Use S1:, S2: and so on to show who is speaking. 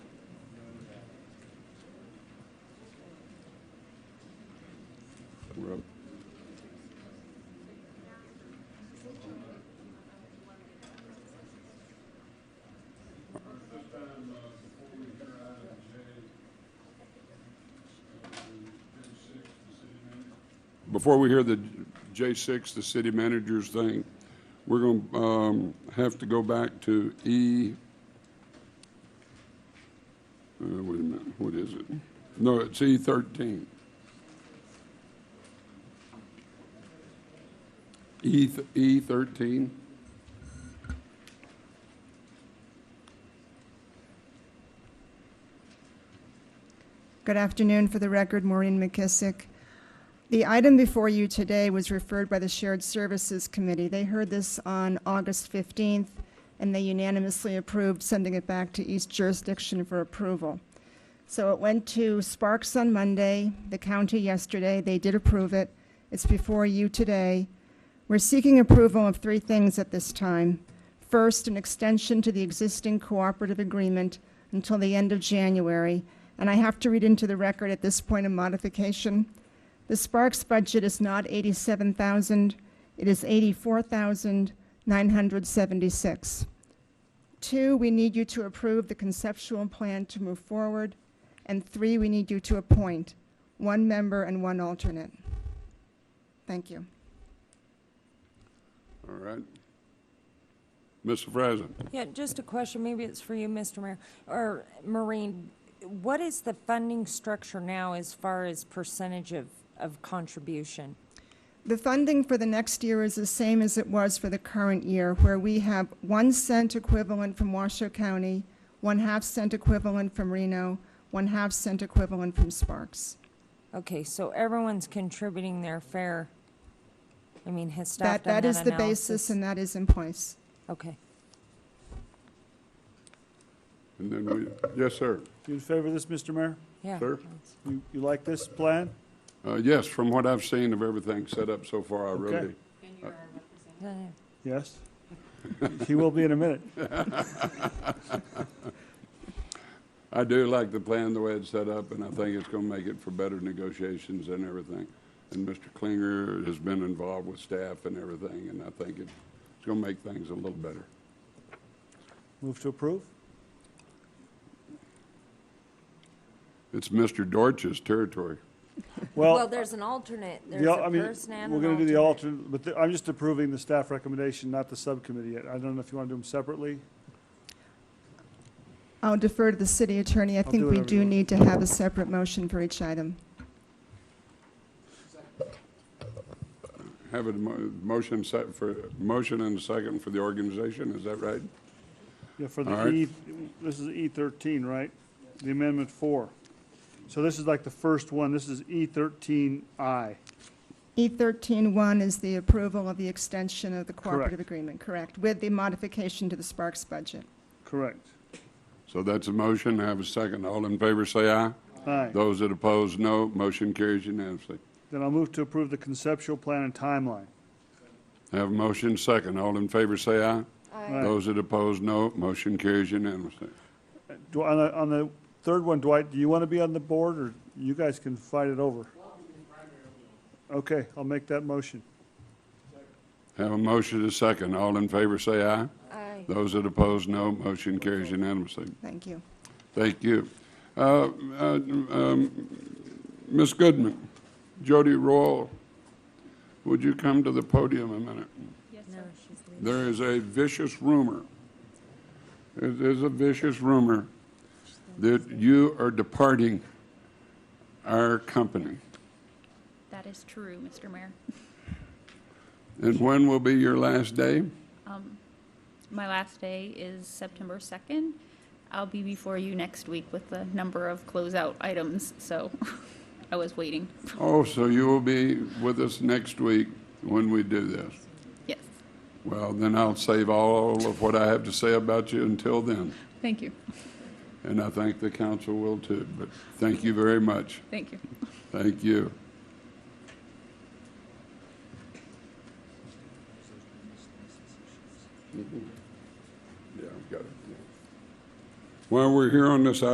S1: before we hear the J6, the city managers thing, we're going to have to go back to E. uh, Wait a minute, what is it? No, it's E13. E th- E13?
S2: Good afternoon. For the record, Maureen McKissick. The item before you today was referred by the Shared Services Committee. They heard this on August 15th, and they unanimously approved sending it back to each jurisdiction for approval. So it went to Sparks on Monday, the county yesterday. They did approve it. It's before you today. We're seeking approval of three things at this time. First, an extension to the existing cooperative agreement until the end of January, and I have to read into the record at this point a modification. The Sparks budget is not 87,000, it is 84,976. Two, we need you to approve the conceptual plan to move forward. And three, we need you to appoint one member and one alternate. Thank you.
S1: All right. Mr. Frazen?
S3: Yeah, just a question, maybe it's for you, Mr. Mayor, or Maureen, what is the funding structure now as far as percentage of, of contribution?
S2: The funding for the next year is the same as it was for the current year, where we have one cent equivalent from Washoe County, one half cent equivalent from Reno, one half cent equivalent from Sparks.
S3: Okay, so everyone's contributing their fair, I mean, has staff
S2: That,
S3: done
S2: that
S3: that
S2: is
S3: analysis?
S2: the basis and that is in place.
S3: Okay,
S1: And then we, yes, sir.
S4: You in favor of this, Mr. Mayor?
S3: yeah.
S1: Sir?
S4: You, you like this plan?
S1: Uh, Yes, from what I've seen of everything set up so far, I
S4: Okay.
S1: really,
S3: Yeah, yeah.
S4: Yes? He will be in a minute.
S1: I do like the plan, the way it's set up, and I think it's going to make it for better negotiations and everything. And Mr. Klinger has been involved with staff and everything, and I think it's going to make things a little better.
S4: Move to approve?
S1: It's Mr. Dorch's territory.
S3: Well,
S4: Well,
S3: there's an alternate,
S4: the
S3: there's
S4: al- I
S3: a
S4: mean,
S3: person and
S4: we're
S3: an
S4: gonna do the
S3: alternate.
S4: alternate, but the- I'm just approving the staff recommendation, not the subcommittee yet. I don't know if you want to do them separately?
S2: I'll defer to the city attorney. I
S4: do
S2: think we
S4: whatever you
S2: do
S4: want.
S2: need to have a separate motion for each item.
S1: Have a mo- motion set for, motion and a second for the organization, is that right?
S4: Yeah, for
S1: All
S4: the
S1: right.
S4: E, this is E thirteen, right? The amendment four. So this is like the first one, this is E thirteen I.
S2: E13-1 E is the approval of the extension of the cooperative
S4: Correct.
S2: agreement, correct? With the modification to the Sparks budget.
S4: Correct.
S1: So that's a motion, have a second. All in favor, say aye.
S4: Aye.
S1: Those that oppose, no. Motion carries unanimously.
S4: Then I'll move to approve the conceptual plan and timeline.
S1: Have a motion, second. All in favor, say aye.
S4: Aye.
S1: Those that oppose, no. Motion carries unanimously.
S4: Do, on the, on the third one, Dwight, do you want to be on the board, or you guys can fight it over? Okay, I'll make that motion.
S1: Have a motion, a second. All in favor, say aye.
S3: Aye.
S1: Those that oppose, no. Motion carries unanimously.
S2: Thank you.
S1: Thank you. Uh, uh, um, Ms. Goodman, Jody Royal, would you come to the podium a minute? There is a vicious rumor, it is a vicious rumor that you are departing our company.
S5: That is true, Mr. Mayor.
S1: And when will be your last day?
S5: My last day is September 2nd. I'll be before you next week with the number of closeout items, so I was waiting.
S1: Oh, so you will be with us next week when we do this.
S5: Yes,
S1: Well, then I'll save all of what I have to say about you until then.
S5: thank you,
S1: And I think the council will too. But thank you very much.
S5: thank you.
S1: Thank you. Yeah, I've got it. While we're here on this